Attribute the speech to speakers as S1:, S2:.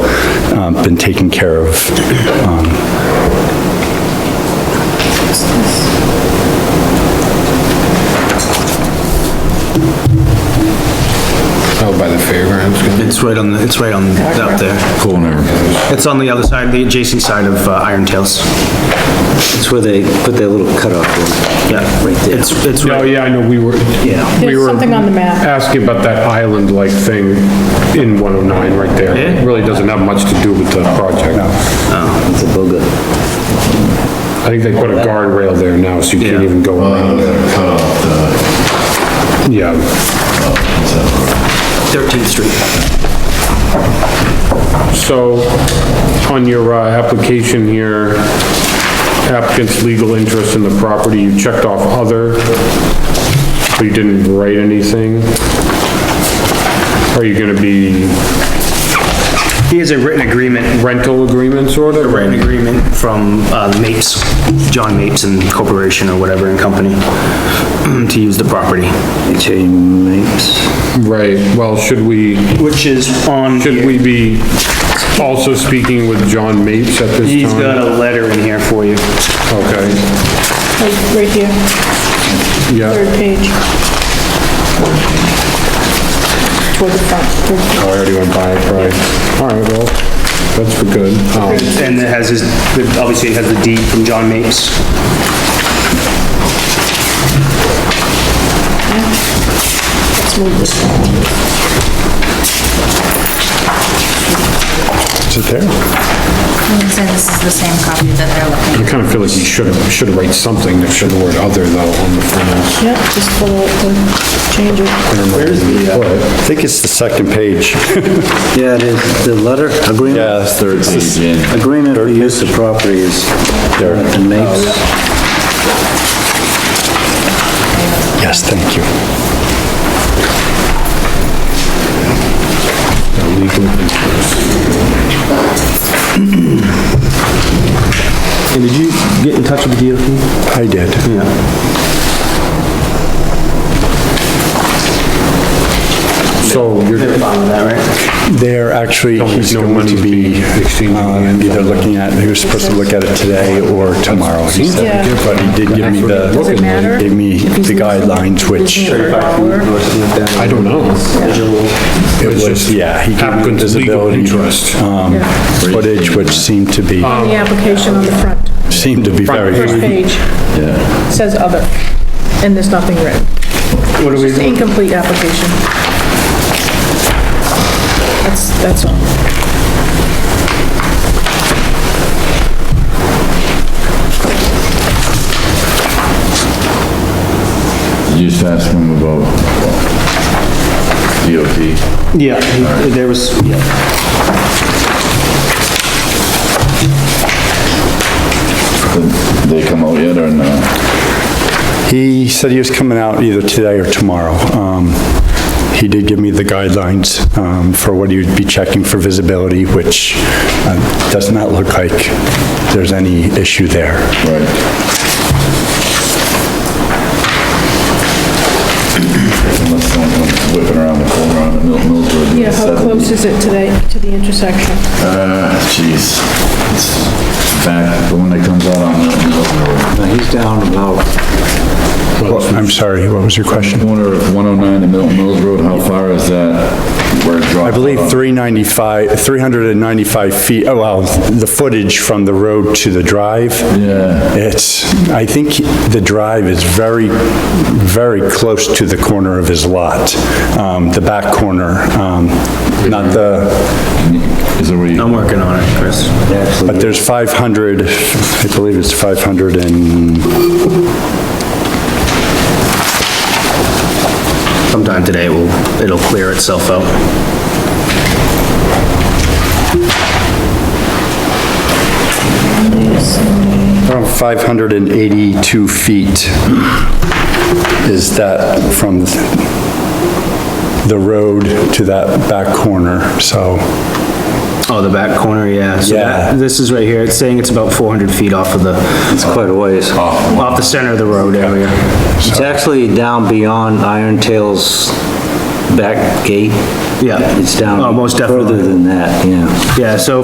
S1: uh, been taken care of. Um,
S2: Out Oh, by the fairgrounds.
S3: It's right on, the. it's right on, up there.
S4: Corner.
S3: It's on the other side, the adjacent side of uh, Iron Tales.
S5: It's where they put their little cutoff in.
S3: Yeah,
S5: Right there.
S3: it's, it's
S2: Oh,
S3: right,
S2: yeah, I know, we were,
S3: yeah.
S2: we
S6: There's
S2: were
S6: something on the map.
S2: asking about that island-like thing in 109 right there.
S3: Yeah?
S2: It Really doesn't have much to do with the project.
S3: Um,
S5: It's a booger.
S2: I think they put a guardrail there now, so you can't
S3: Yeah.
S2: even go around. Yeah,
S3: 13th Street.
S2: so on your, uh, application here, applicant's legal interest in the property, you checked off other, but you didn't write anything. Are you gonna be
S3: He has a written agreement,
S2: rental agreements or
S3: a
S2: whatever?
S3: written agreement from uh, Mapes, John Mapes and Corporation or whatever and company, to use the property,
S5: HA Mapes.
S2: Right, well, should we,
S3: which is on,
S2: should we be also speaking with John Mapes at this time?
S3: he's got a letter in here for you.
S2: Okay,
S6: Like, right here,
S2: yeah,
S6: third page. Toward the front, third page.
S2: oh, I already went by it, right. All right, well, that's for good. Um,
S3: And it has his, obviously it has the deed from John Mapes.
S6: let's move this one.
S2: Is it there?
S7: And so this is the same copy that they're looking
S2: I kind of feel like you should, should write something that showed the word other though on the front.
S6: Yep, just follow it, then change it.
S1: I think it's the second page.
S5: uh, Yeah, it is, the letter, agreement?
S4: Yeah, it's third page in.
S5: Agreement for use of property is Jonathan
S1: Oh,
S5: Mapes.
S1: Yes, thank you.
S3: And did you get in touch with the DOT?
S1: I did.
S3: Yeah.
S2: So you're,
S3: They're fine with that, right?
S1: They're actually, he's
S2: no
S1: going to
S2: money's
S1: be
S2: being exchanged
S1: uh,
S2: in the end.
S1: either looking at, he was supposed to look at it today or tomorrow, he said.
S6: Yeah.
S1: But he did give me the,
S7: Does it matter?
S1: gave me the guidelines, which it
S2: I don't know.
S1: was, yeah, he gave me
S2: Applicant's legal
S1: visibility,
S2: interest.
S1: um, footage, which seemed to be,
S6: The application on the front,
S1: seemed to be very
S6: first page. Says other, and there's nothing written.
S3: What do we
S6: It's an
S3: do?
S6: incomplete application. That's, that's all.
S4: You just ask him about DOT.
S3: Yeah, he- there was,
S4: Did they come out uh, yet or no?
S1: He said he was coming out either today or tomorrow. Um, He did give me the guidelines um, for what he would be checking for visibility, which uh, does not look like there's any issue there.
S4: Right. Unless someone comes whipping around the corner on the Milton Mills Road.
S6: Yeah, how close is it to the, to the intersection?
S4: Uh, jeez. It's back, the one that comes out on Milton Mills Road.
S5: Now, he's down about,
S1: Well, I'm sorry, what was your question?
S4: Corner of 109 and Milton Mills Road, how far is that? Where it
S1: I
S4: drops
S1: believe
S4: off?
S1: 395, 395 feet, oh, well, the footage from the road to the drive.
S4: Yeah.
S1: It's, I think the drive is very, very close to the corner of his lot, um, the back corner, um, not the,
S4: Is it where you?
S3: I'm working on it, Chris.
S1: but there's 500, I believe it's 500 and,
S3: Sometime today, will it'll clear itself out.
S1: around 582 feet is that from the road to that back corner, so,
S3: Oh, the back corner, yeah. So that-
S1: Yeah.
S3: This is right here, it's saying it's about 400 feet off of the,
S5: it's quite a ways.
S3: off the center of the road area.
S5: It's actually down beyond Iron Tail's back gate.
S3: Yeah.
S5: It's down.
S3: Oh, most
S5: Further
S3: definitely.
S5: than that, yeah.
S3: Yeah, so